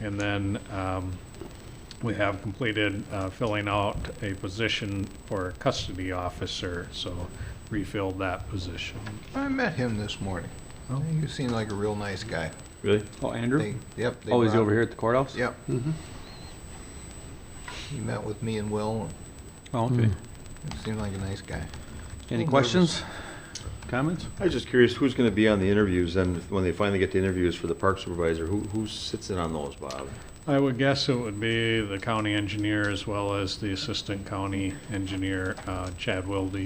And then um, we have completed uh, filling out a position for a custody officer, so refilled that position. I met him this morning. Oh. He seemed like a real nice guy. Really? Oh, Andrew? They, yep. they Oh, he's brought- over here Mm-hmm. at the courthouse? Yep. He met with me and Will. Oh, okay. and Seemed like a nice guy. Any nervous. questions? Comments? I was just curious, who's going to be on the interviews, and when they finally get the interviews for the park supervisor, who, who sits in on those, Bob? I would guess it would be the county engineer as well as the assistant county engineer, uh, Chad Wilde.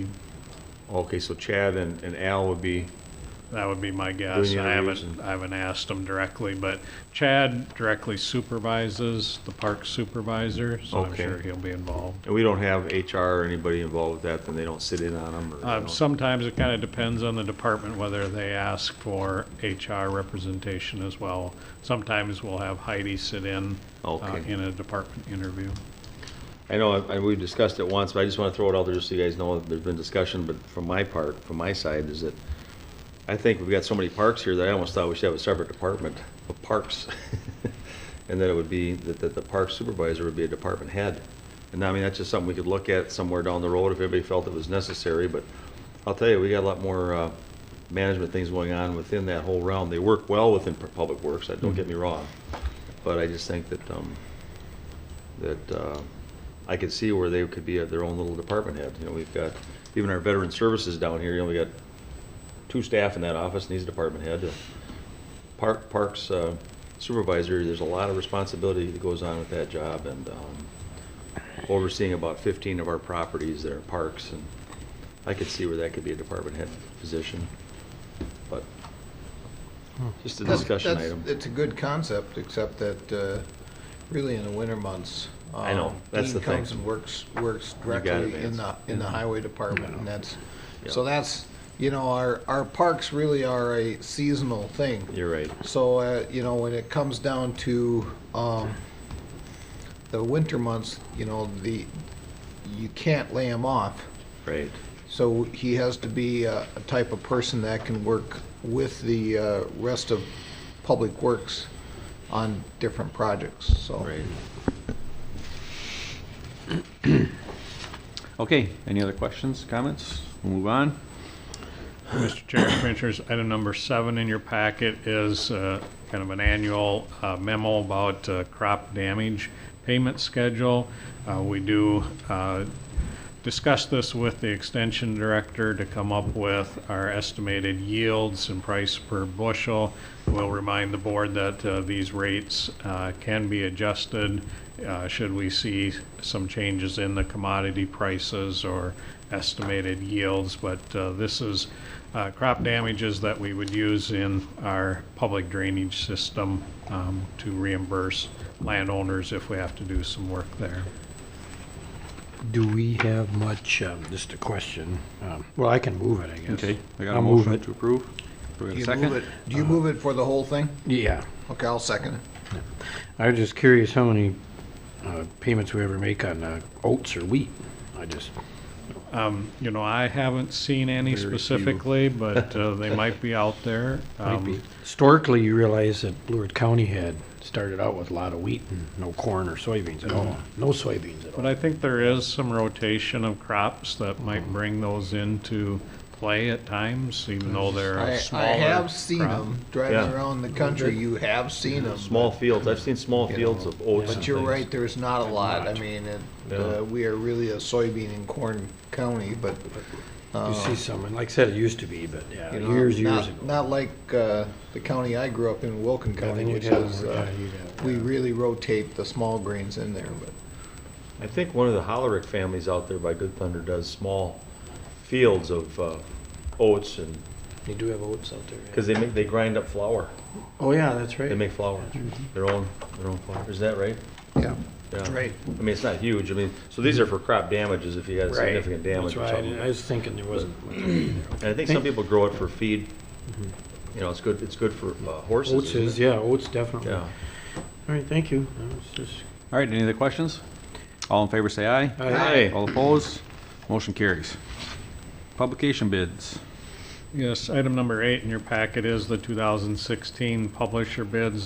Okay, so Chad and, and Al would be, That would be my guess. Doing I interviews haven't, and- I haven't asked him directly, but Chad directly supervises the park supervisor, so I'm Okay. sure he'll be involved. and we don't have HR or anybody involved with that, then they don't sit in on them, or? they Uh, don't- Sometimes it kind of depends on the department whether they ask for HR representation as well. Sometimes we'll have Heidi sit in uh, Okay. in a department interview. I know, I, we've discussed it once, but I just want to throw it out there just so you guys know, that there's been discussion, but from my part, from my side, is that I think we've got so many parks here that I almost thought we should have a separate department of parks. And that it would be, that, that the park supervisor would be a department head. And I mean, that's just something we could look at somewhere down the road if everybody felt it was necessary, but I'll tell you, we got a lot more, uh, management things going on within that whole realm. They work well within pu- public works, I- don't get me wrong. But I just think that, um, that uh, I could see where they could be at their own little department head. You know, we've got, even our veteran services down here, you know, we got two staff in that office, and he's a department head. Park, Parks uh, supervisor, there's a lot of responsibility that goes on with that job, and um, overseeing about 15 of our properties that are parks, and I could see where that could be a department head position. But, just a That's- discussion that's- item. It's a good concept, except that, uh, really in the winter months. I know, um, that's the Dean comes thing. and works, works got it, directly in the, Vance. in the highway department, and that's, Yeah. so that's, you know, our, our parks really are a seasonal thing. You're right. So, uh, you know, when it comes down to, um, the winter months, you know, the, you can't lay them off. Right. So he has to be a a type of person that can work with the uh, rest of Public Works on different projects, so. Right. Okay, any other questions, comments? We'll move on. Mr. Chair, Commissioners, item number seven in your packet is uh, kind of an annual uh, memo about uh, crop damage payment schedule. Uh, We do uh, discuss this with the Extension Director to come up with our estimated yields and price per bushel. We'll remind the board that uh, these rates uh, can be adjusted uh, should we see some changes in the commodity prices or estimated yields, but uh, this is uh, crop damages that we would use in our public drainage system um, to reimburse landowners if we have to do some work there. Do we have much, um, just a question, um, well, I can move it, I guess. Okay, I got a I'll move motion it. to approve. Do we Do have a you move second? it, do you move it for the whole thing? Yeah, Okay, I'll second it. I was just curious how many uh, payments we ever make on uh, oats or wheat. I just, You know, I haven't seen any Very few. specifically, but uh, they might be out there. might Um, be- historically, you realize that Blewett County had started out with a lot of wheat and no corn or soybeans Mm-hmm. at all, no soybeans at all. But I think there is some rotation of crops that might bring those into play at times, even though they're I, a I smaller. have seen crop. them driving Yeah. around the country, you have seen them. Small fields, I've seen small You fields know, of oats and But you're things. right, there's not a lot, I mean, it- Yeah. uh, we are really a soybean and corn county, but, You see some, and like I said, it used to be, but yeah, Uh, you know, years, years not- ago. Not like uh, the county I grew up in, Wilken Yeah, then County, you'd which have- is, uh, yeah, you'd have- we really rotate the small grains in there, but. I think one of the Hollerick families out there by Good Thunder does small fields of uh, oats and, You do have oats out there. yeah. because they make, they grind up flour. Oh, yeah, that's They right. make flour, their own, their own flour. Is that right? Yeah. Yeah. Right. I mean, it's not huge. I mean, so these are for crop damages if you had significant damage That's or why I something. didn't- I was thinking there wasn't much. And I think some people grow it for feed. You know, it's good, it's good for uh, horses. Oats isn't is, it? yeah, oats definitely. Yeah. All right, thank you. That was just- All right, any other questions? All in favor, say aye. Aye. All opposed? Motion carries. Publication bids. Yes, item number eight in your packet is the 2016 publisher bids